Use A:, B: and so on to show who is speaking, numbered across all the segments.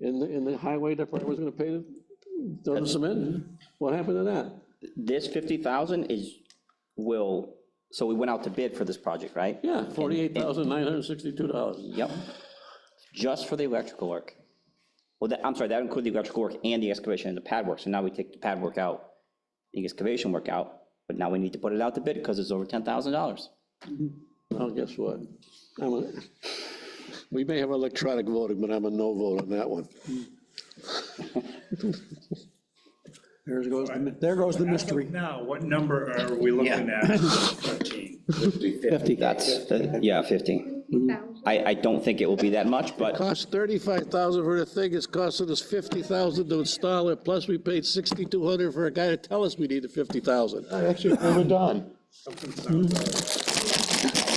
A: and the, and the highway department was gonna pay the, throw the cement? What happened to that?
B: This 50,000 is, will, so we went out to bid for this project, right?
A: Yeah, forty-eight thousand nine hundred sixty-two dollars.
B: Yep. Just for the electrical work. Well, that, I'm sorry, that included the electrical work and the excavation and the pad work. So now we take the pad work out, the excavation work out, but now we need to put it out to bid because it's over $10,000.
A: Well, guess what? I'm a,
C: We may have electronic voting, but I'm a no vote on that one.
A: there goes,
D: There goes the
E: As of
D: mystery.
E: Now, what number are we looking at? Thirteen.
D: 50.
B: That's, that- yeah, 15. I, I don't think it will be that much, but
C: Cost thirty-five thousand for the thing, it's costing us fifty thousand to install it, plus we paid sixty-two hundred for a guy to tell us we needed fifty thousand. Actually, we were done.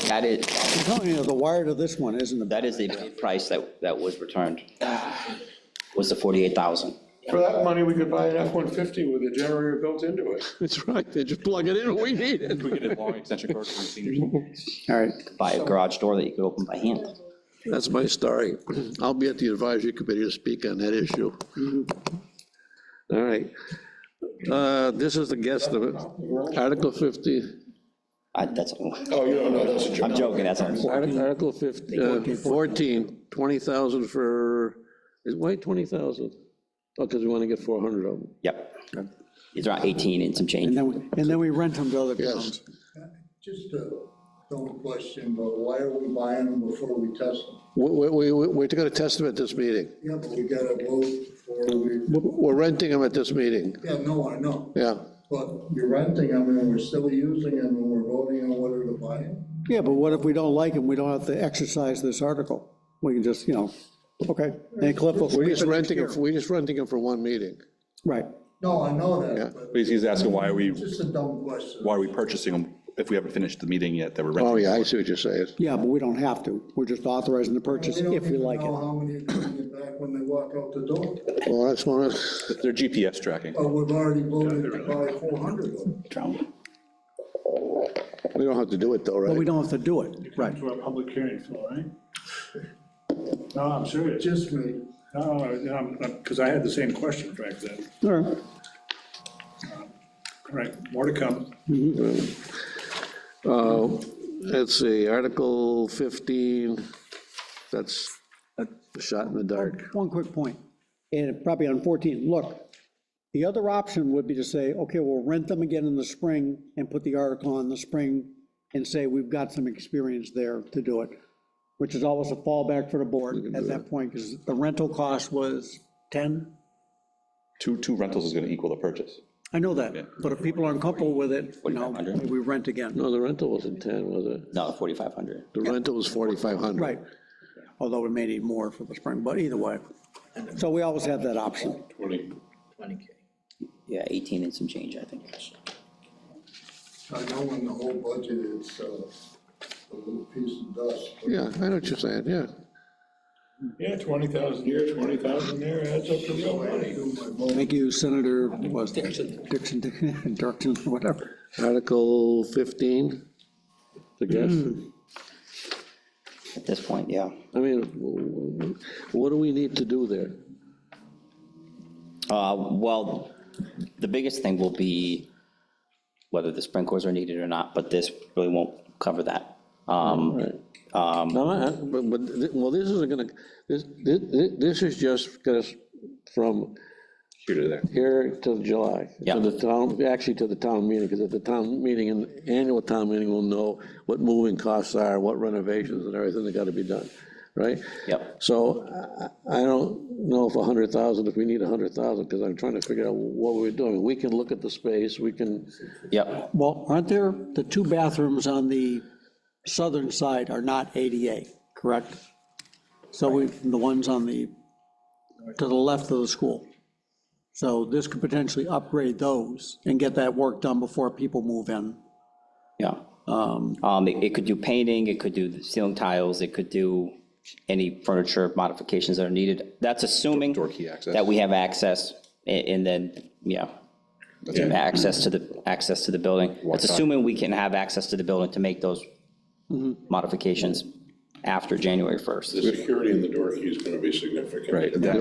B: that is,
D: I'm telling you, the wire to this one isn't the best.
B: that is the price that, that was returned, was the 48,000.
F: For that money, we could buy an F-150 with a generator built into it.
C: That's right, they just plug it in, when we need it.
G: We get a long extension cord from seniors.
D: All right.
B: Buy a garage door that you could open by hand.
C: That's my story. I'll be at the advisory committee to speak on that issue. All right. Uh, This is the guest of it. Article 50,
B: I, that's,
F: Oh, you don't know, that's a
B: I'm joking, that's, all.
A: Article Article 50, uh, 14, 20,000 for, is, why 20,000? Oh, because we want to get 400 of them.
B: yep. It's around 18 and some
D: And
B: change.
D: then, we and then we rent them to other towns.
H: Just a dumb question, but why are we buying them before we test them?
C: we, we, we- we're going to test them at this meeting.
H: Yeah, but we gotta vote before we,
C: We're renting them at this meeting,
H: yeah, no, I know,
C: yeah.
H: but you're renting them and we're still using them and we're voting on whether to buy them?
D: Yeah, but what if we don't like them? We don't have to exercise this article. We can just, you know, okay. And Cliff will.
C: We're just renting them, we're just renting them for one meeting.
D: Right.
H: No, I know
C: Yeah.
H: that, but
G: He's he's asking why are we,
H: it's just a dumb question.
G: why are we purchasing them if we haven't finished the meeting yet that we're renting?
C: Oh, yeah, I see what you're saying.
D: Yeah, but we don't have to. We're just authorizing the purchase
H: don't
D: if we
H: even
D: like
H: know
D: it.
H: How many are gonna get back when they walk out the door,
C: Well, that's one of,
G: They're GPS tracking.
H: but we've already voted to buy four hundred of them.
C: we don't have to do it though,
D: But we
C: right?
D: don't have to do it. Right.
E: To a public hearing floor, right? No, I'm serious.
H: Just me,
E: No, because I had the same question back then.
D: All right.
E: All right, more to come.
A: Uh,
C: Let's see, Article 15, that's a shot in the dark.
D: One quick point, and probably on 14, look, the other option would be to say, okay, we'll rent them again in the spring and put the article on the spring and say, we've got some experience there to do it, which is always a fallback for the board at that point, because the rental cost was 10?
G: Two, two rentals is going to equal the purchase.
D: I know that, but if people aren't comfortable with it, you know,
B: 4,500.
D: we rent again.
A: No, the rental wasn't 10, was it?
B: No, 4,500.
C: The rental was 4,500.
D: Right, although we may need more for the spring, but either way. So we always have that option.
B: Yeah, 18 and some change, I think.
H: I know in the whole budget, it's uh, a little piece of dust, but
C: Yeah, I know what you're saying, yeah.
F: Yeah, 20,000 here, 20,000 there, adds up to real money.
H: do my vote.
D: Thank you, Senator, was Dixon, Dixon, Dirksen, whatever.
C: Article 15,
A: The guess?
B: At this point, yeah.
A: Hmm. I mean, w- w- what do we need to do there?
B: Uh, Well, the biggest thing will be whether the sprinklers are needed or not, but this really won't cover that. Um,
A: No, I- I- but, but, thi- well, this isn't gonna, this, this, this is just gonna, s- from
G: Here to there.
A: here till July.
B: Yeah.
A: To the town, actually to the town meeting, because at the town meeting, and annual town meeting will know what moving costs are, what renovations and everything that gotta be done, right?
B: Yep.
A: So I, I don't know if a hundred thousand, if we need a hundred thousand, because I'm trying to figure out what we're doing. We can look at the space, we can,
B: Yep,
D: Well, aren't there, the two bathrooms on the southern side are not ADA, correct? So we, the ones on the, to the left of the school. So this could potentially upgrade those and get that work done before people move in.
B: yeah. Um, It it could do painting, it could do the ceiling tiles, it could do any furniture modifications that are needed. That's assuming
G: Door key access.
B: that we have access a- and then, yeah, access to the, access to the building. It's assuming we can have access to the building to make those
G: Mm-hmm.
B: modifications after January 1st.
F: The security in the door key is going to be significant.
G: Right.